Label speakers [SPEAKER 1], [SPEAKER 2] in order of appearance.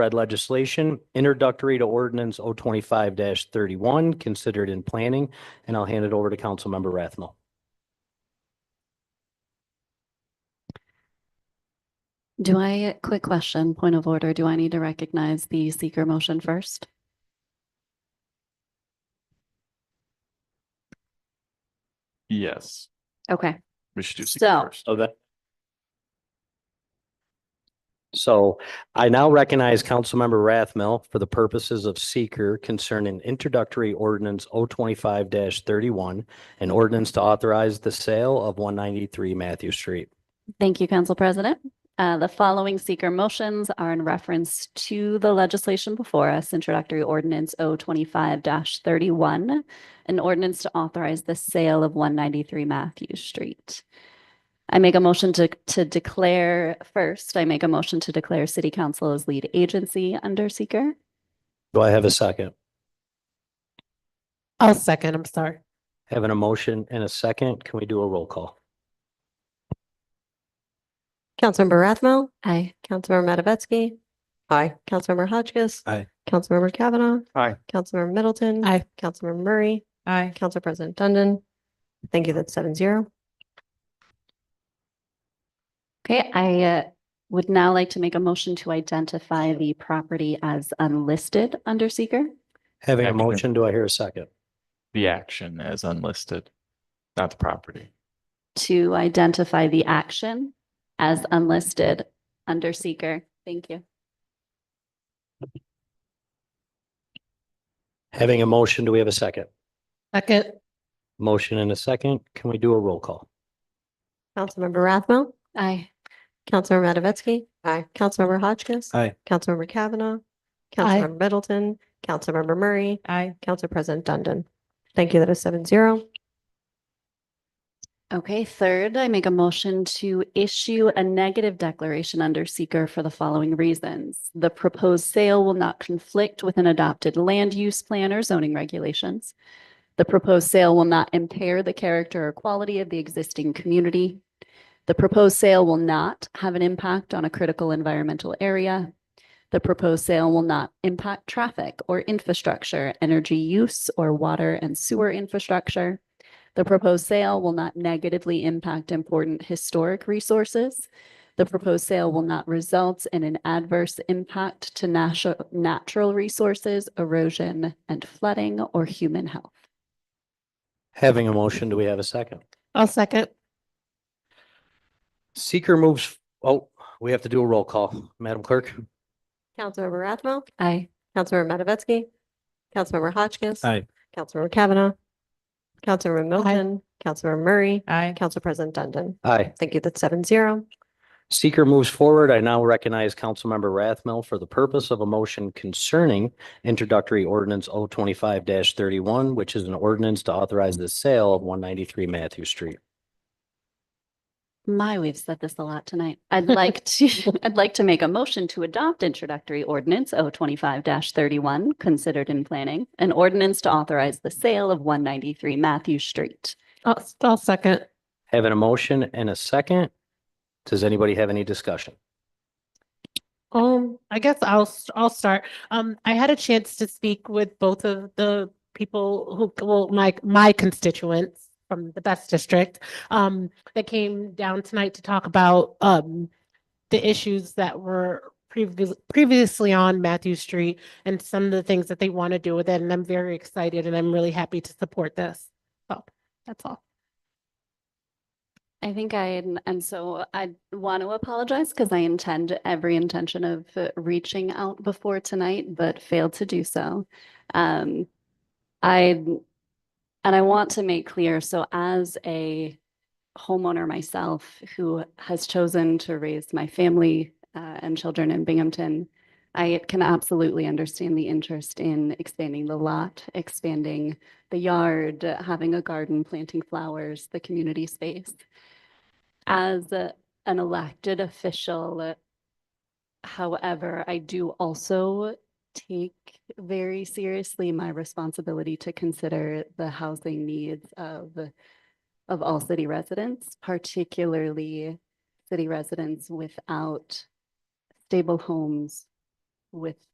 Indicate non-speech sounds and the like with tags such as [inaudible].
[SPEAKER 1] Red legislation introductory to ordinance O twenty-five thirty-one, considered in planning, and I'll hand it over to Councilmember Rathmel.
[SPEAKER 2] Do I, quick question, point of order, do I need to recognize the seeker motion first?
[SPEAKER 3] Yes,
[SPEAKER 2] Okay,
[SPEAKER 3] we should do secret
[SPEAKER 2] So-
[SPEAKER 3] first.
[SPEAKER 1] So that. So I now recognize Councilmember Rathmel for the purposes of seeker concerning introductory ordinance O twenty-five thirty-one, an ordinance to authorize the sale of one ninety-three Matthew Street.
[SPEAKER 2] thank you, Council President. Uh, the following seeker motions are in reference to the legislation before us, introductory ordinance O twenty-five thirty-one, an ordinance to authorize the sale of one ninety-three Matthew Street. I make a motion to, to declare, first, I make a motion to declare city council as lead agency under seeker.
[SPEAKER 1] Do I have a second?
[SPEAKER 4] I'll second, I'm sorry.
[SPEAKER 1] Having a motion and a second, can we do a roll call?
[SPEAKER 5] Councilmember Rathmel,
[SPEAKER 2] Aye.
[SPEAKER 5] Councilmember Matavetsky. Aye. Councilmember Hotchkiss.
[SPEAKER 1] Aye.
[SPEAKER 5] Councilmember Kavanaugh.
[SPEAKER 3] Aye.
[SPEAKER 5] Councilmember Middleton.
[SPEAKER 4] Aye.
[SPEAKER 5] Councilmember Murray,
[SPEAKER 4] Aye.
[SPEAKER 5] Council President Dundon. Thank you, that's seven zero.
[SPEAKER 2] Okay, I uh, would now like to make a motion to identify the property as unlisted under seeker.
[SPEAKER 1] Having a
[SPEAKER 3] Action.
[SPEAKER 1] motion, do I hear a second?
[SPEAKER 3] The action as unlisted, not the property.
[SPEAKER 2] To identify the action as unlisted under seeker. Thank you.
[SPEAKER 1] Having a motion, do we have a second?
[SPEAKER 4] Second,
[SPEAKER 1] Motion and a second, can we do a roll call?
[SPEAKER 5] Councilmember Rathmel,
[SPEAKER 2] Aye.
[SPEAKER 5] Councilmember Matavetsky. Aye. Councilmember Hotchkiss.
[SPEAKER 1] Aye.
[SPEAKER 5] Councilmember Kavanaugh.
[SPEAKER 4] Aye.
[SPEAKER 5] Councilmember Middleton, Councilmember Murray,
[SPEAKER 4] aye.
[SPEAKER 5] Council President Dundon. Thank you, that is seven zero.
[SPEAKER 2] Okay, third, I make a motion to issue a negative declaration under seeker for the following reasons. The proposed sale will not conflict with an adopted land use plan or zoning regulations. The proposed sale will not impair the character or quality of the existing community. The proposed sale will not have an impact on a critical environmental area. The proposed sale will not impact traffic or infrastructure, energy use, or water and sewer infrastructure. The proposed sale will not negatively impact important historic resources. The proposed sale will not result in an adverse impact to natu- natural resources, erosion and flooding, or human health.
[SPEAKER 1] Having a motion, do we have a second?
[SPEAKER 4] I'll second.
[SPEAKER 1] Seeker moves, oh, we have to do a roll call. Madam Clerk?
[SPEAKER 5] Councilmember Rathmel,
[SPEAKER 2] Aye.
[SPEAKER 5] Councilmember Matavetsky. Councilmember Hotchkiss.
[SPEAKER 1] Aye.
[SPEAKER 5] Councilmember Kavanaugh. Councilmember Middleton, Councilmember Murray,
[SPEAKER 4] Aye.
[SPEAKER 5] Council President Dundon.
[SPEAKER 1] Aye.
[SPEAKER 5] Thank you. That's seven zero.
[SPEAKER 1] Seeker moves forward. I now recognize Councilmember Rathmel for the purpose of a motion concerning introductory ordinance O twenty-five thirty-one, which is an ordinance to authorize the sale of one ninety-three Matthew Street.
[SPEAKER 2] My, we've said this a lot tonight. [laughs] I'd like to, I'd like to make a motion to adopt introductory ordinance O twenty-five thirty-one, considered in planning, an ordinance to authorize the sale of one ninety-three Matthew Street.
[SPEAKER 4] I'll, I'll second.
[SPEAKER 1] Having a motion and a second. Does anybody have any discussion?
[SPEAKER 4] Um, I guess I'll, s- I'll start. Um, I had a chance to speak with both of the people who, well, my, my constituents from the best district, um, that came down tonight to talk about, um, the issues that were previous, previously on Matthew Street and some of the things that they want to do with it. And I'm very excited and I'm really happy to support this. So that's all.
[SPEAKER 2] I think I, and- and so I want to apologize because I intend every intention of uh, reaching out before tonight, but failed to do so. Um, I, and I want to make clear, so as a homeowner myself who has chosen to raise my family uh, and children in Binghamton, I can absolutely understand the interest in expanding the lot, expanding the yard, uh, having a garden, planting flowers, the community space as a- an elected official, uh, however, I do also take very seriously my responsibility to consider the housing needs of, of all city residents, particularly city residents without stable homes, with